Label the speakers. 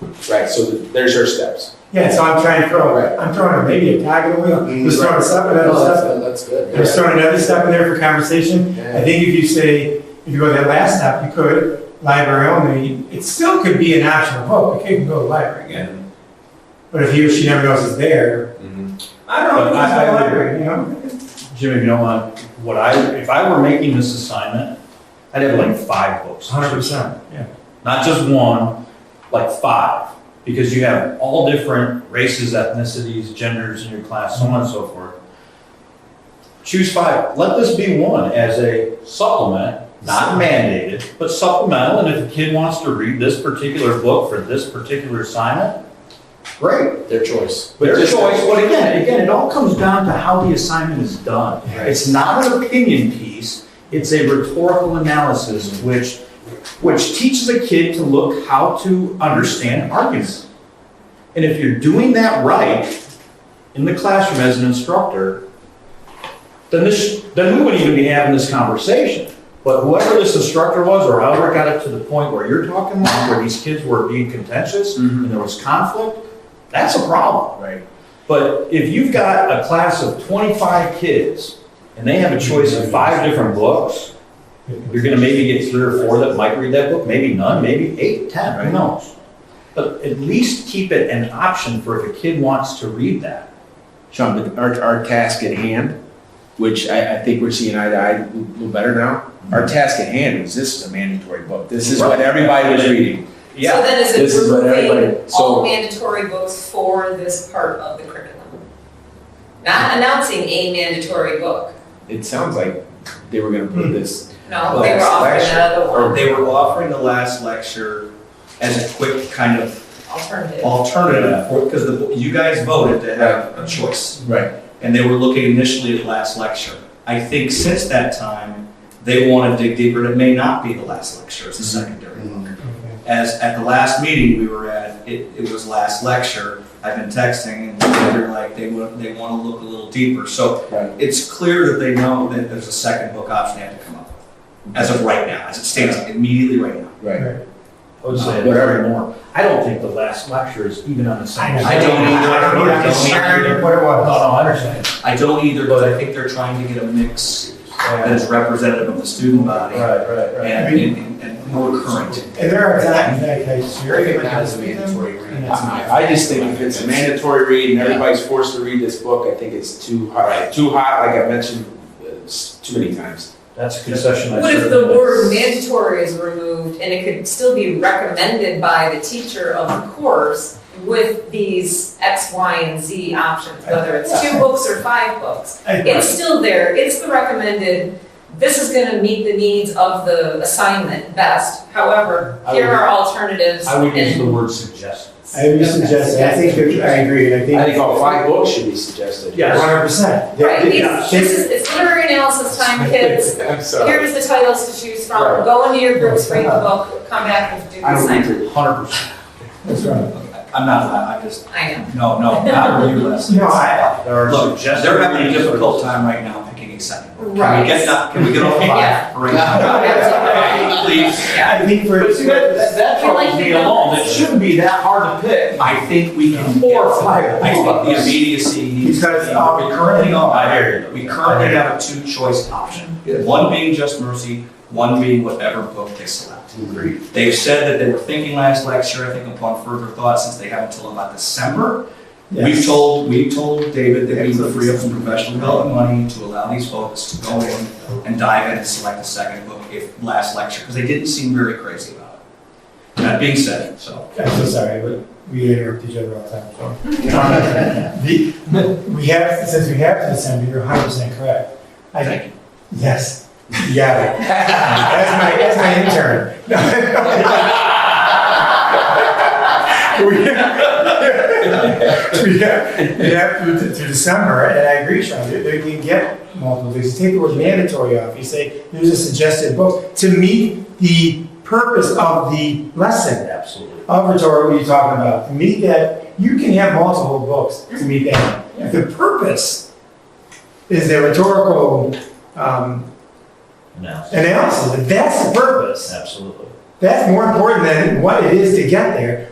Speaker 1: Right, so there's your steps.
Speaker 2: Yeah, so I'm trying to
Speaker 3: Right.
Speaker 2: throw, I'm throwing maybe a tag in the wheel,
Speaker 4: Mm-hmm.
Speaker 3: Mm,
Speaker 2: just throwing a step, another
Speaker 3: No, that's
Speaker 2: step,
Speaker 3: good, that's good.
Speaker 2: just throwing another step in there for conversation.
Speaker 3: Yeah.
Speaker 2: I think if you say, if you go to that last step, you could, library only, it still could be an optional vote, the kid can go to the library again. But if he or she never knows it's there,
Speaker 3: Mm-hmm.
Speaker 2: I don't know,
Speaker 4: But
Speaker 2: it's
Speaker 4: I- I
Speaker 2: the
Speaker 4: would-
Speaker 2: library, you know?
Speaker 4: Jimmy, if you don't mind, what I, if I were making this assignment, I'd have like five books.
Speaker 2: Hundred percent, yeah.
Speaker 4: Not just one, like five, because you have all different races, ethnicities, genders in your class, so on and so forth. Choose five. Let this be one as a supplement, not mandated, but supplemental. And if a kid wants to read this particular book for this particular assignment, great.
Speaker 3: Their choice.
Speaker 4: But just always, but again, again, it all comes down to how the assignment is done.
Speaker 3: Right.
Speaker 4: It's not an opinion piece, it's a rhetorical analysis which, which teaches a kid to look how to understand arguments. And if you're doing that right in the classroom as an instructor, then this, then we wouldn't even be having this conversation. But whoever this instructor was, or however it got it to the point where you're talking about, where these kids were being contentious and there was conflict, that's a problem.
Speaker 3: Right.
Speaker 4: But if you've got a class of 25 kids and they have a choice of five different books, you're going to maybe get three or four that might read that book, maybe none, maybe eight, 10, who knows? But at least keep it an option for if a kid wants to read that.
Speaker 5: Sean, the- our, our task at hand, which I, I think we're seeing eye to eye a little better now. Our task at hand was this is a mandatory book. This is what
Speaker 4: Right.
Speaker 5: everybody was reading.
Speaker 4: Yeah.
Speaker 6: So then
Speaker 5: This
Speaker 6: is
Speaker 5: is
Speaker 6: it
Speaker 5: what everybody-
Speaker 6: removing
Speaker 5: so-
Speaker 6: all mandatory books for this part of the curriculum? Not announcing a mandatory book,
Speaker 5: It sounds like they were gonna
Speaker 3: Mm.
Speaker 5: put this.
Speaker 6: no, they were
Speaker 5: Well,
Speaker 6: offering
Speaker 5: selection,
Speaker 6: another one,
Speaker 7: They were offering the last lecture as a quick kind of
Speaker 5: oh.
Speaker 6: alternative.
Speaker 7: alternative for, because the, you guys voted to have a choice.
Speaker 5: Right.
Speaker 7: And they were looking initially at last lecture. I think since that time, they want to dig deeper, and it may not be the last lecture, it's a secondary
Speaker 3: Mm-hmm.
Speaker 7: one. As, at the last meeting we were at, it, it was last lecture, I've been texting, and they're like, they want, they want to look a little deeper. So
Speaker 5: Right.
Speaker 7: it's clear that they know that there's a second book option they have to come up with, as of right now, as it stands immediately right now.
Speaker 5: Right.
Speaker 4: I would say very more. I don't think the last lecture is even on the same.
Speaker 7: I don't either.
Speaker 2: I don't know, I'm just sharing what it
Speaker 4: No, no,
Speaker 2: was.
Speaker 4: I understand.
Speaker 7: I don't either, but I think they're trying to get a mix that is representative of the student body
Speaker 4: Right, right,
Speaker 7: and, and, and more current.
Speaker 2: And there are times that I share it, but I
Speaker 3: Recognize
Speaker 2: just
Speaker 3: the
Speaker 2: read them.
Speaker 3: mandatory reading.
Speaker 2: It's
Speaker 5: I I just think if it's a mandatory read and everybody's forced to read this book, I think it's too hot, too hot, like I mentioned, uh, s- too many times.
Speaker 4: That's a concession. I
Speaker 6: What if the
Speaker 4: certainly-
Speaker 6: word mandatory is removed and it could still be recommended by the teacher of the course with these X, Y, and Z options, whether it's two books or five books? It's still there, it's the recommended, this is gonna meet the needs of the assignment best, however,
Speaker 4: I
Speaker 6: here
Speaker 4: would-
Speaker 6: are alternatives.
Speaker 4: I would use
Speaker 6: and-
Speaker 4: the word suggest.
Speaker 2: I would suggest, I think, that- I agree, I think.
Speaker 5: I think all five books should be suggested.
Speaker 4: Yes.
Speaker 2: One hundred percent.
Speaker 6: Right, it's, this is, it's literary analysis time, kids,
Speaker 5: I'm sorry.
Speaker 6: here's the titles to choose
Speaker 5: Right.
Speaker 6: from, go into your groups, read the book, come back and do the
Speaker 5: I don't
Speaker 6: assignment.
Speaker 5: agree.
Speaker 4: Hundred percent.
Speaker 2: That's right.
Speaker 7: I'm not, I I just,
Speaker 6: I know,
Speaker 7: no, no, not a review lesson.
Speaker 2: No, I-
Speaker 4: There are
Speaker 7: Look,
Speaker 4: suggestions.
Speaker 7: they're having a difficult time right now picking a second. book. Can
Speaker 6: Right.
Speaker 7: we get, that- can we get all
Speaker 6: Yeah.
Speaker 7: five right now? Please.
Speaker 6: yeah.
Speaker 2: I think for.
Speaker 4: But see, that, that, that
Speaker 6: I like
Speaker 4: troubles me
Speaker 6: the
Speaker 4: alone, it
Speaker 6: numbers.
Speaker 4: shouldn't be that hard to pick.
Speaker 7: I think we can.
Speaker 4: Four or five.
Speaker 7: I think the immediacy needs to be.
Speaker 2: Because, um,
Speaker 7: we currently are-
Speaker 4: I hear you.
Speaker 7: We currently have a two-choice option, one being just mercy, one being whatever book they select.
Speaker 5: Agreed.
Speaker 7: They've said that they were thinking last lecture, I think upon further thought, since they have until about December. We've
Speaker 2: Yes.
Speaker 7: told, we've told David that we would free up some professional development money to allow these folks to go in and dive in and select a second book if last lecture, because they didn't seem very crazy about it. That being said, so.
Speaker 2: I'm so sorry, but we interrupt each other all the time. Uh, The- We have, since we have to assemble, you're hundred percent correct. I, yes, you got it. That's my, that's my intern. No, no. We have- we have, we have to, to- to December, and I agree, Sean, they, they can get multiple things. You Take the word mandatory off, you say, there's a suggested book to meet the purpose of the lesson
Speaker 4: Absolutely.
Speaker 2: of rhetoric, what are you talking about? To meet that, you can have multiple books to meet that. If the purpose is the rhetorical um,
Speaker 4: No,
Speaker 2: analysis, if that's the purpose,
Speaker 4: absolutely.
Speaker 2: that's more important than what it is to get there.